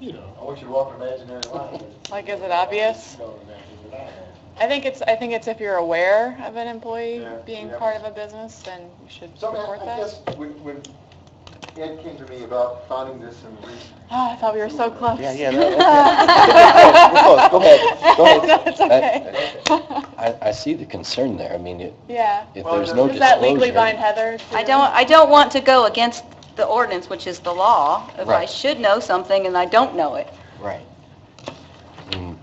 you know. I want you to walk an imaginary line. that Like, is it obvious? you don't imagine that I have. I think it's, I think it's if you're aware of an employee Yeah, being yeah. part of a business, then you should So I mean, report I- I that. guess when, when Ed came to me about finding this and re- Ah, I thought we were so close. Yeah, yeah, no, okay. We're close, go ahead, go ahead. Uh, No, it's okay. I, I see the concern there. I mean, it- Yeah. if Well, there's does- no Does that legally bind disclosure. Heather? to- I don't, I don't want to go against the ordinance, which is the law. If I Right. should know something and I don't know it. Right. Mm.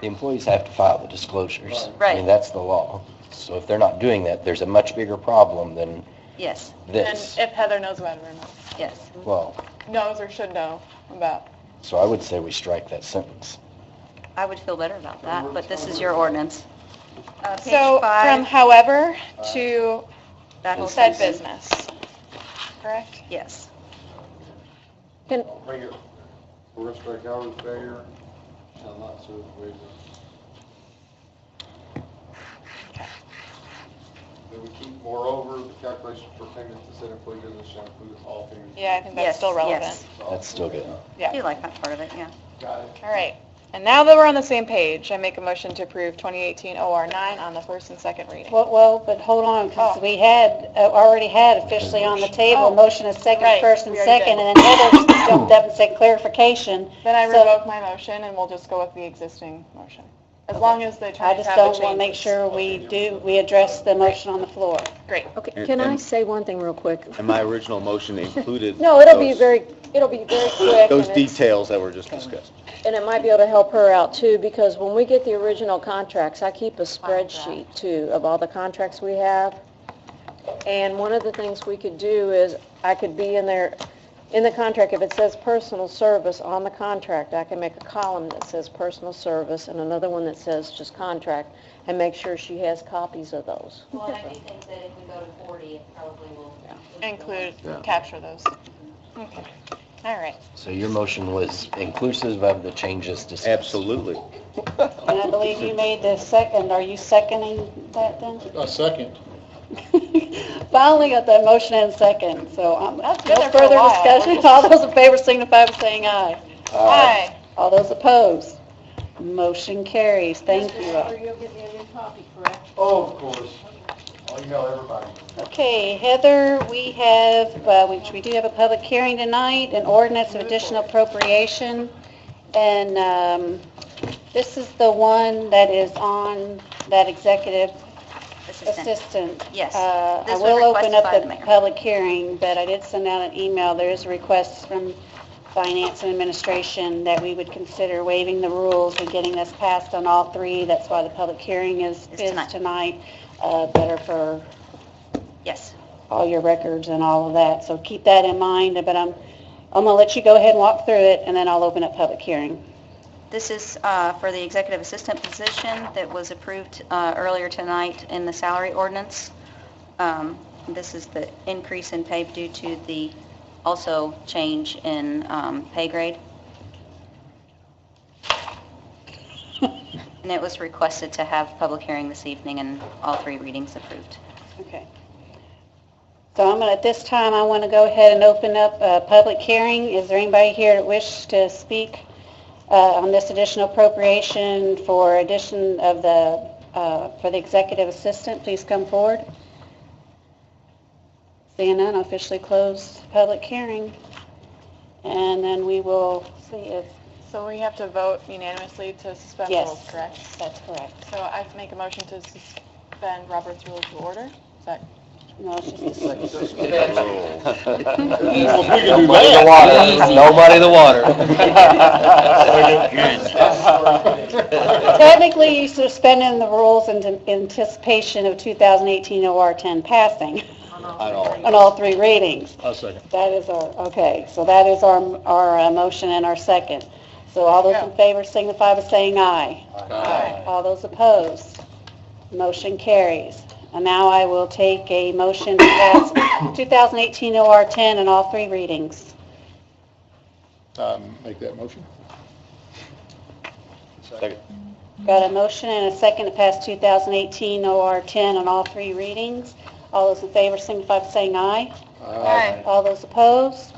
The employees have to file the disclosures. I mean, Right. that's the law. So if they're not doing that, there's a much bigger problem than Yes, And this. if Heather knows about it or not, yes. Well, knows or should know about. so I would say we strike that sentence. I would feel better about that, but this is your ordinance. Uh, page So five, from however Uh, to that whole said sentence. business, correct? Yes. make it, for respect hours failure, shall not serve wages. Then we keep moreover, the calculation for payments to said employee business shall include all things. Yeah, I think that's Yes, still relevant. yes. That's still good. Yeah. I do like that part of it, yeah. Got it. All right. And now that we're on the same page, I make a motion to approve 2018 OR 9 on the first and second reading. Well, well, but hold on, because we had, uh, already had officially on the table, Oh. a motion is Right, second, first and we already second, and then Heather jumped up and said clarification. Then I So, revoke my motion and we'll just go with the existing motion. As long as the I attorneys just have don't the want to make changes. sure we do, we address the motion on the floor. Great. Okay, And- can I and- say one thing real quick? And my original motion included. No, it'll be those- very, it'll be very quick. Those and it's- details that were just discussed. And it might be able to help her out too, because when we get the original contracts, I keep a spreadsheet too of all the contracts we have. And one of the things we could do is, I could be in there, in the contract, if it says personal service on the contract, I can make a column that says personal service and another one that says just contract, and make sure she has copies of those. Well, and I do think that if we go to 40, it probably will. Include, Yeah. capture those. Okay. All right. So your motion was inclusive of the changes discussed. Absolutely. And I believe you made the second, are you seconding that then? A second. Finally got that motion and second, so um, no been there for a further while. discussion. All those in favor signify by saying aye. Ah. Aye. All those opposed, motion carries. Thank you all. You'll give me a new copy, correct? Oh, of course. I'll email everybody. Okay, Heather, we have, uh, which we do have a public hearing tonight, an ordinance of additional appropriation. And um, this is the one that is on that executive Assistant. assistant. Yes. Uh, I This was will open requested up by the the mayor. public hearing, but I did send out an email. There is a request from Finance and Administration that we would consider waiving the rules and getting this passed on all three. That's why the public hearing is, Is is tonight. tonight. Uh, Better for Yes. all your records and all of that, so keep that in mind, but I'm, I'm gonna let you go ahead and walk through it, and then I'll open up public hearing. This is uh, for the executive assistant position that was approved uh, earlier tonight in the salary ordinance. Um, This is the increase in pay due to the also change in um, pay grade. And it was requested to have public hearing this evening and all three readings approved. Okay. So I'm gonna, at this time, I wanna go ahead and open up a public hearing. Is there anybody here that wish to speak uh, on this additional appropriation for addition of the, uh, for the executive assistant? Please come forward. Seeing none, officially close public hearing. And then we will see if So we have to vote unanimously to suspend Yes. rules, correct? That's correct. So I make a motion to suspend Robert's rules of order? Is that No, it's just a do Nobody in the water, nobody in the water. Technically, you're suspending the rules in anticipation of 2018 OR 10 passing At all. on all three readings. A second. That is our, okay, so that is our, our uh, motion and our second. So all those in favor signify by saying aye. All those opposed, motion carries. And now I will take a motion to pass 2018 OR 10 in all three readings. Um, Make that motion. Got a motion and a second to pass 2018 OR 10 on all three readings. All those in favor signify by saying aye. Uh, Aye. All those opposed,